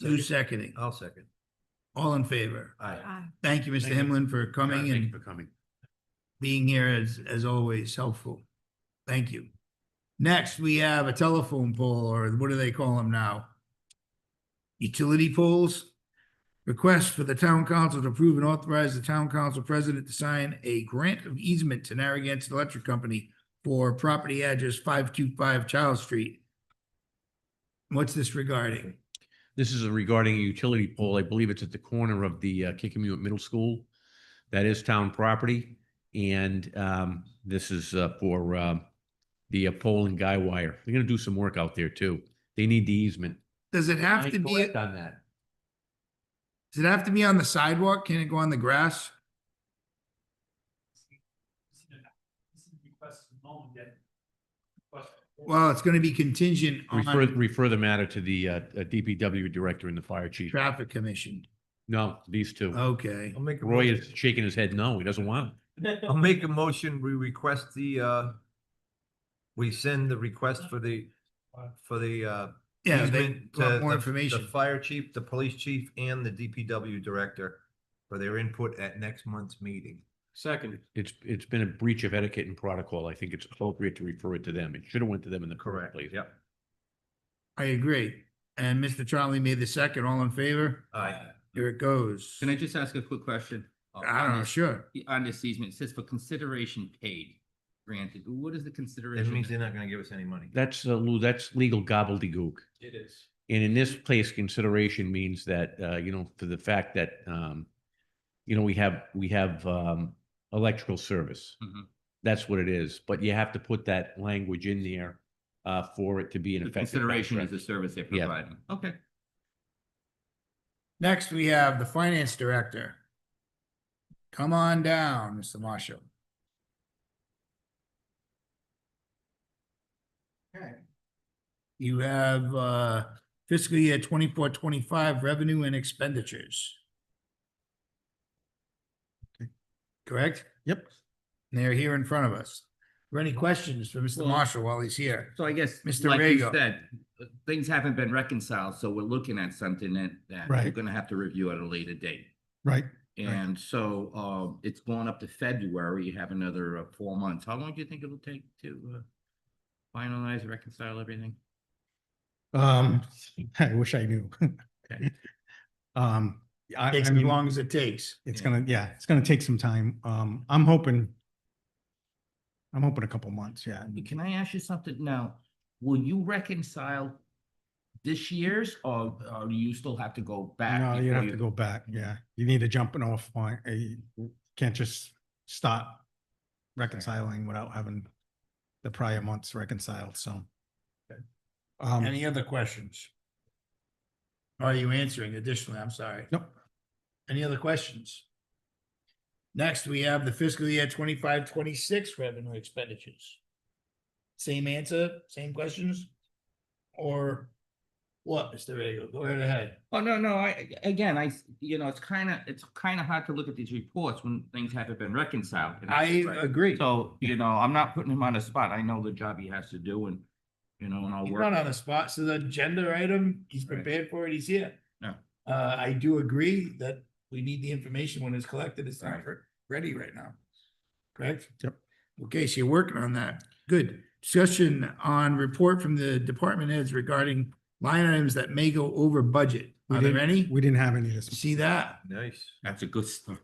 Who's seconding? I'll second. All in favor? Aye. Thank you, Mr. Thank you. Himlin, for coming Yeah, thank and you For coming. being here as, as always, helpful. Thank you. Next, we have a telephone pole, or what do they call them now? Utility poles. Request for the town council to approve and authorize the town council president to sign a grant of easement to Narragansett Electric Company for property address five two five Child Street. What's this regarding? This is regarding a utility pole. I believe it's at the corner of the uh, Kikemewett Middle School. That is town property. And um, this is uh, for um, the uh, pole and guy wire. They're going to do some work out there too. They need the easement. Does it have I to be, collect On that. does it have to be on the sidewalk? Can it go on the grass? Well, it's gonna be contingent Refer, on refer the matter to the uh, uh, DPW director and the fire chief. traffic commission. No, these two. Oh. Okay, I'll make. a Roy motion- is shaking his head. No, he doesn't want it. I'll make a motion. We request the, uh, we send the request for the, for the, uh, yeah, they easement to want more the- information. The fire chief, the police chief, and the DPW director for their input at next month's meeting. Second. It's, it's been a breach of etiquette and protocol. I think it's appropriate to refer it to them. It should have went to them in the correct place. Yep. I agree. And Mr. Charlie made the second, all in favor? Aye. Here it goes. Uh, Can I just ask a quick question? Uh, I on don't know, this- sure. On this easement, it says for consideration paid, granted, what is the That consideration? means they're not gonna give us any money. That's, uh, Lou, that's legal gobbledygook. It is. And in this place, consideration means that, uh, you know, for the fact that, um, you know, we have, we have, um, electrical service. Mhm. That's what it is, but you have to put that language in there, uh, for it to be an The effective. consideration is contract. the service they're Yeah. providing, okay. Next, we have the finance director. Come on down, Mr. Marshall. You have uh, fiscal year twenty-four, twenty-five revenue and expenditures. Correct? Yep. And They're here in front of us. Are there any questions for Mr. Well- Marshall while he's here? So I guess, Mr. like you Rego. said, uh, things haven't been reconciled, so we're looking at something that, that we're Right. gonna have to review at a later date. Right, And so, uh, it's going up to February, you have another uh, four months. How long do you think it'll take to, uh, finalize, reconcile everything? um, I wish I knew. Okay. Um, I, Takes I as mean, long as it takes. it's yeah. gonna, yeah, it's gonna take some time, um, I'm hoping. I'm hoping a couple months, yeah, Can I ask you something now? Will you reconcile this year's or, or do you still have to go back? no, you before have you- to go back, yeah, you need a jumping off point, Uh, you can't just stop. Reconciling without having the prior months reconciled, so. Um, Any other questions? Are you answering additionally? I'm sorry. nope, Any other questions? Next, we have the fiscal year 25-26 revenue expenditures. Same answer, same questions? Or what, Mr. Rego? Go right ahead. Oh, no, no, I, again, I, s- you know, it's kind of, it's kind of hard to look at these reports when things haven't been reconciled. and that's I right. agree. So, you know, I'm not putting him on the spot. I know the job he has to do and, you know, and I'll He's work. not on the spot, so the agenda item, he's Right. prepared for it, he's here. Yeah. Uh, I do agree that we need the information when it's collected, it's not Right. re- ready right now. Correct? Yep. Okay, so you're working on that. Good. Discussion on report from the department heads regarding line items that may go over budget. We Are there didn't- any? we didn't have any this, See that? Nice. That's a good start.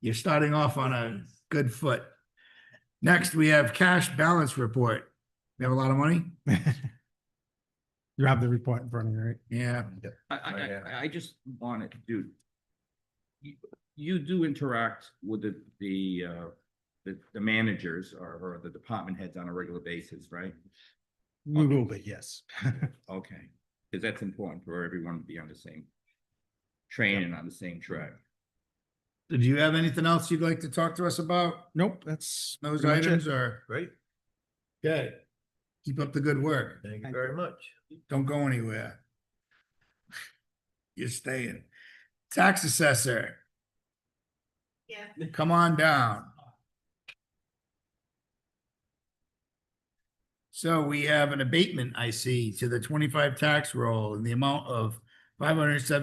You're starting off on a good foot. Next, we have cash balance report. We have a lot of money? you have the report in front of you, right? Yeah. I, I, Right, yeah. I, I just wanted, dude. You, you do interact with the, the, uh, the, the managers or, or the department heads on a regular basis, right? We will be, yes. Okay, because that's important for everyone to be on the same train and on the same track. Did you have anything else you'd like to talk to us about? Nope, that's. Those pretty much it. items are, Great. good. Keep up the good work. Thank you Thank very much. Don't go anywhere. You're staying. Tax assessor, Yeah. come on down. So we have an abatement, I see, to the twenty-five tax roll in the amount of five hundred seventeen